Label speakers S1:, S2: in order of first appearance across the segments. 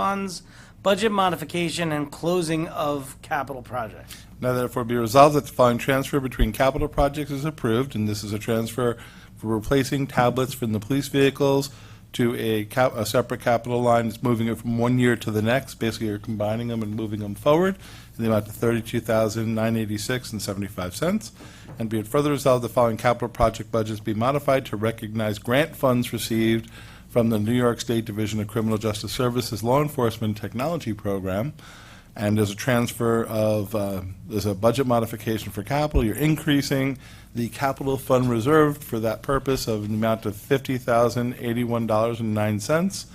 S1: funds, budget modification, and closing of capital projects.
S2: Now therefore be resolved that the following transfer between capital projects is approved, and this is a transfer for replacing tablets from the police vehicles to a cap, a separate capital line, it's moving it from one year to the next, basically you're combining them and moving them forward, in the amount of thirty-two thousand nine eighty-six and seventy-five cents. And be it further resolved, the following capital project budgets be modified to recognize grant funds received from the New York State Division of Criminal Justice Services Law Enforcement Technology Program, and there's a transfer of, uh, there's a budget modification for capital. You're increasing the capital fund reserved for that purpose of an amount of $50,081.09,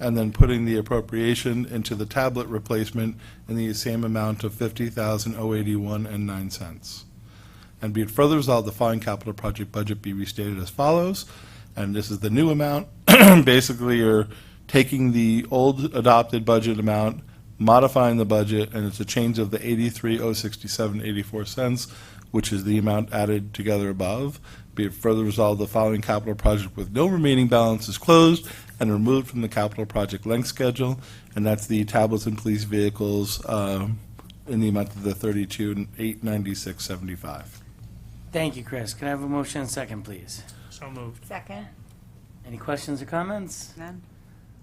S2: and then putting the appropriation into the tablet replacement in the same amount of $50,081.09. And be it further resolved, the following capital project budget be restated as follows, and this is the new amount. Basically, you're taking the old adopted budget amount, modifying the budget, and it's a change of the eighty-three oh sixty-seven eighty-four cents, which is the amount added together above. Be it further resolved, the following capital project with no remaining balance is closed and removed from the capital project length schedule, and that's the tablets and police vehicles, um, in the amount of the thirty-two eight ninety-six seventy-five.
S1: Thank you, Chris. Can I have a motion and second, please?
S3: So moved.
S4: Second,
S1: Any questions or comments?
S4: none.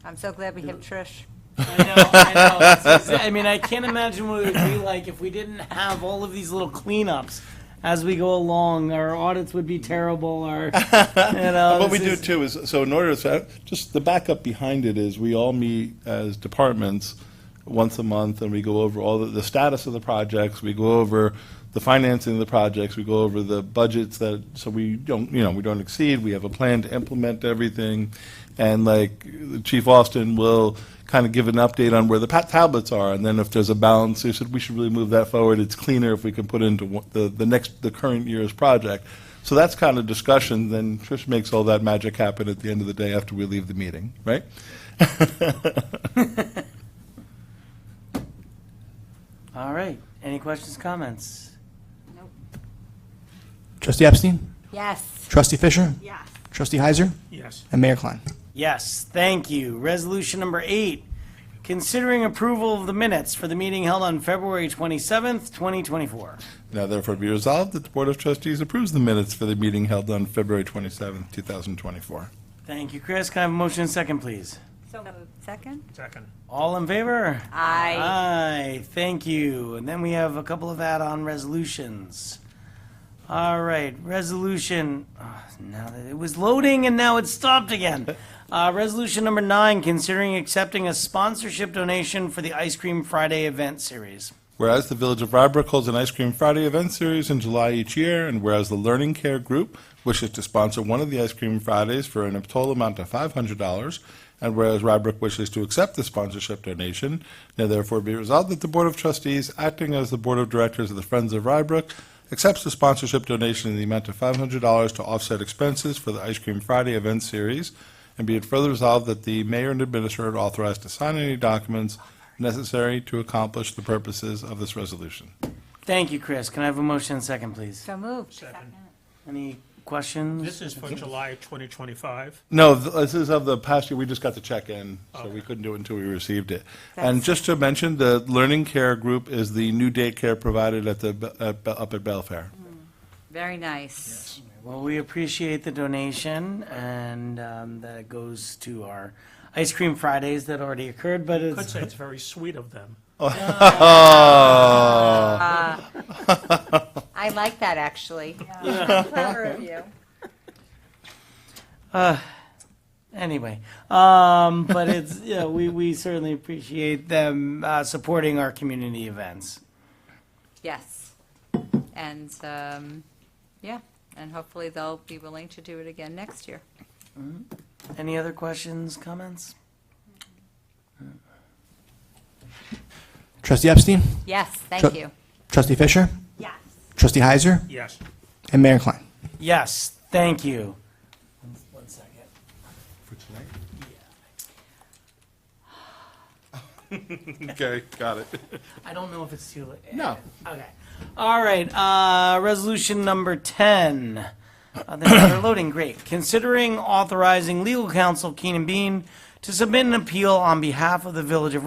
S4: I'm so glad we have Trish.
S1: I know, I know. It's- it's- I mean, I can't imagine what it would be like if we didn't have all of these little cleanups as we go along. Our audits would be terrible, our, you know.
S2: What we
S1: this
S2: do
S1: is-
S2: too is, so in order, so just the backup behind it is we all meet as departments once a month and we go over all the, the status of the projects, we go over the financing of the projects, we go over the budgets that, so we don't, you know, we don't exceed, we have a plan to implement everything. And like Chief Austin will kind of give an update on where the pa- tablets are and then if there's a balance, he said, we should really move that forward. It's cleaner if we can put into one- the, the next, the current year's project. So that's kind of discussion, then Trish makes all that magic happen at the end of the day after we leave the meeting, right?
S1: All right. Any questions, comments?
S5: Trustee Epstein?
S4: Yes.
S5: Trustee Fisher?
S4: Yes.
S5: Trustee Heiser?
S3: Yes.
S5: And Mayor Klein.
S1: Yes, thank you. Resolution number eight, considering approval of the minutes for the meeting held on February 27th, 2024.
S2: Now therefore be resolved that the Board of Trustees approves the minutes for the meeting held on February 27th, 2024.
S1: Thank you, Chris. Can I have a motion and second, please?
S4: So moved. Second?
S3: Second.
S1: All in favor?
S4: Aye.
S1: Aye, thank you. And then we have a couple of add-on resolutions. All right, resolution, ah, now that it was loading and now it's stopped again. Uh, resolution number nine, considering accepting a sponsorship donation for the Ice Cream Friday event series.
S2: Whereas the Village of Rybrook holds an Ice Cream Friday event series in July each year, and whereas the Learning Care Group wishes to sponsor one of the Ice Cream Fridays for an total amount of $500, and whereas Rybrook wishes to accept the sponsorship donation, now therefore be resolved that the Board of Trustees, acting as the Board of Directors of the Friends of Rybrook, accepts the sponsorship donation in the amount of $500 to offset expenses for the Ice Cream Friday event series, and be it further resolved that the mayor and administrator are authorized to sign any documents necessary to accomplish the purposes of this resolution.
S1: Thank you, Chris. Can I have a motion and second, please?
S4: So moved.
S3: Second.
S1: Any questions?
S3: This is for July 2025.
S2: No, th- this is of the past year, we just got the check in, so we couldn't do it until we received it. And just to mention, the Learning Care Group is the new daycare provided at the, Be- at Be- up at Belfair.
S4: Very nice.
S1: Well, we appreciate the donation, and um, that goes to our Ice Cream Fridays that already occurred, but
S3: Could
S1: it's,
S3: say it's very sweet of them.
S4: Uh, I like that, actually. Clever of you.
S1: anyway. Um, But it's, yeah, we, we certainly appreciate them uh, supporting our community events.
S4: Yes. And, um, yeah, and hopefully they'll be willing to do it again next year.
S1: Any other questions, comments?
S5: Trustee Epstein?
S4: Yes, thank
S5: Sure.
S4: you.
S5: Trustee Fisher?
S4: Yes.
S5: Trustee Heiser?
S3: Yes.
S5: And Mayor Klein.
S1: Yes, thank you. One second.
S2: Okay, got it.
S1: I don't know if it's too late.
S2: No.
S1: Okay. All right. Uh, resolution number 10. Uh, they're, they're loading. Great. Considering authorizing legal counsel Keenan Bean to submit an appeal on behalf of the Village of